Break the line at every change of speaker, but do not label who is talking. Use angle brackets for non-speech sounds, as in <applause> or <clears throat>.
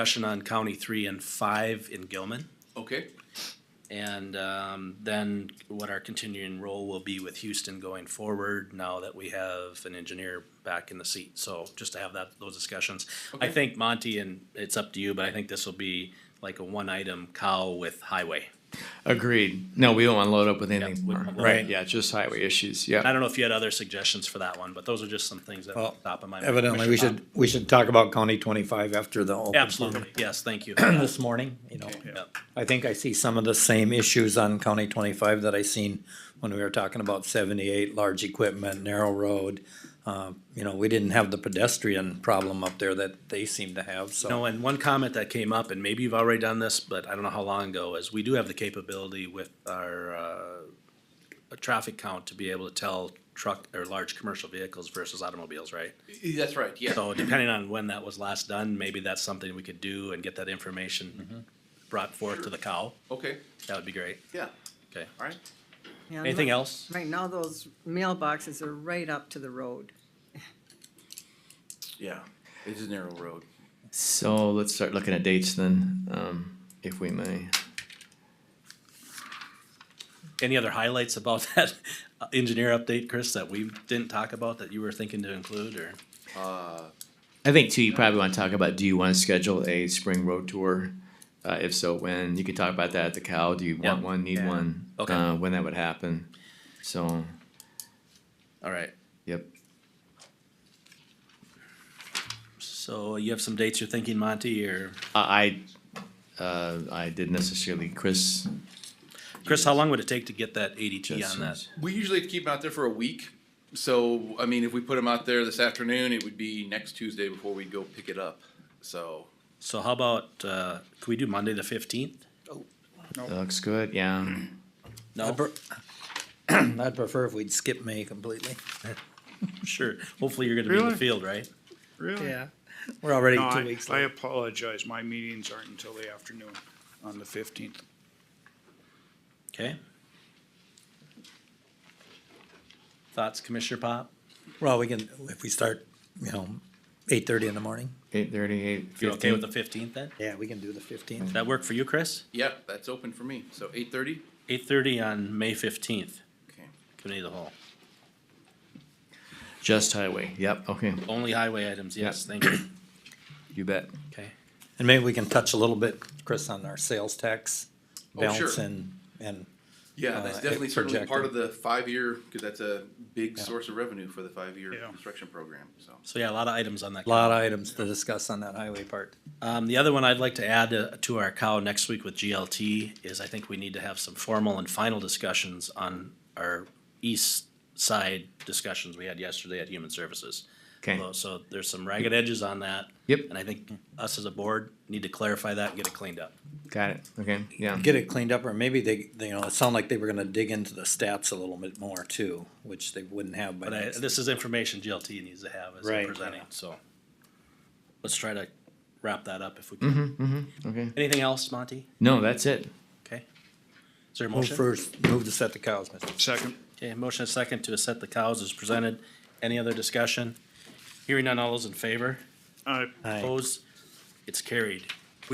discussion on County Three and Five in Gilman.
Okay,
And um, then what our continuing role will be with Houston going forward now that we have an engineer back in the seat. So just to have that, those discussions. I
Okay.
think Monty, and it's up to you, but I think this will be like a one-item cow with highway.
Agreed. No, we don't want to load up with anything
we-
more.
we-
Right, yeah, just highway issues,
I
yeah.
don't know if you had other suggestions for that one, but those are just some things that
Well,
top of my mind.
Evidently, we should, we should talk about County twenty-five after the open
Absolutely,
forum
yes, thank
<clears throat>
you.
This morning, you know,
Yep.
I think I see some of the same issues on County twenty-five that I seen when we were talking about seventy-eight, large equipment, narrow road. Uh, You know, we didn't have the pedestrian problem up there that they seem to have, so.
No, and one comment that came up, and maybe you've already done this, but I don't know how long ago, is we do have the capability with our, uh, traffic count to be able to tell truck or large commercial vehicles versus automobiles, right?
Y- that's right, yeah.
So depending on when that was last done, maybe that's something we could do and get that information brought forth to the cow.
Okay,
That would be great.
yeah,
Okay.
all right.
Yeah, and
Anything
right-
else?
Right now, those mailboxes are right up to the road.
Yeah, it's a narrow road.
So let's start looking at dates then, um, if we may.
Any other highlights about <laughs> that uh, engineer update, Chris, that we didn't talk about that you were thinking to include or?
Uh,
I think too, you probably want to talk about, do you want to schedule a spring road tour? Uh, if so, when? You can talk about that at the cow. Do you
Yeah.
want one, need
Yeah.
one?
Okay.
Uh, when that would happen. So,
All right.
yep.
So you have some dates you're thinking, Monty, or?
I, I, uh, I didn't necessarily, Chris.
Chris, how long would it take to get that ADT on that?
Justin's-
we usually have to keep them out there for a week. So, I mean, if we put them out there this afternoon, it would be next Tuesday before we go pick it up. So,
So how about, uh, could we do Monday the fifteenth? <laughs>
That uh, Looks good, yeah.
No,
<clears throat> I'd prefer if we'd skip May completely.
sure. Hopefully you're gonna be in the
Really?
field, right?
Really?
We're already
No,
two
I,
weeks
I
late.
apologize. My meetings aren't until the afternoon on the fifteenth.
Okay. Thoughts, Commissioner Pop?
Well, we can, if we start, you know, eight-thirty in the morning.
Eight thirty, eight
You're okay with
fifteen.
the fifteenth then?
Yeah, we can do the fifteenth.
Does that work for you, Chris?
yeah, that's open for me. So eight thirty?
Eight thirty on May fifteenth,
Okay.
committee of the whole.
Just highway, yep, okay,
Only highway items, yes, thank you.
you bet.
Okay.
And maybe we can touch a little bit, Chris, on our sales tax
Oh, sure.
balance and, and,
Yeah,
Uh,
that's
it
definitely certainly part
projected.
of the five-year, because that's a big
Yeah.
source of revenue for the five-year
Yeah.
construction program, so.
So yeah, a lot of items on that.
a lot of items to discuss on that highway part.
Um, the other one I'd like to add uh, to our cow next week with GLT is I think we need to have some formal and final discussions on our east side discussions we had yesterday at Human Services.
Okay.
So- So there's some ragged edges on that.
Yep.
And I think us as a board need to clarify that and get it cleaned up.
Got it, okay, yeah.
Get it cleaned up, or maybe they, they, you know, it sounded like they were gonna dig into the stats a little bit more too, which they wouldn't have by
But I,
next.
this is information GLT needs to have as they're
Right.
presenting, so. Let's try to wrap that up if we can.
Mm-hmm, Okay.
Anything else, Monty?
No, that's it.
Okay. Is there a
Move
motion?
first, move to set the cows, Mr.
Second.
Okay, motion and second to set the cows as presented. Any other discussion? Hearing none, all those in favor?
Uh,
Aye.
Opposed? It's carried.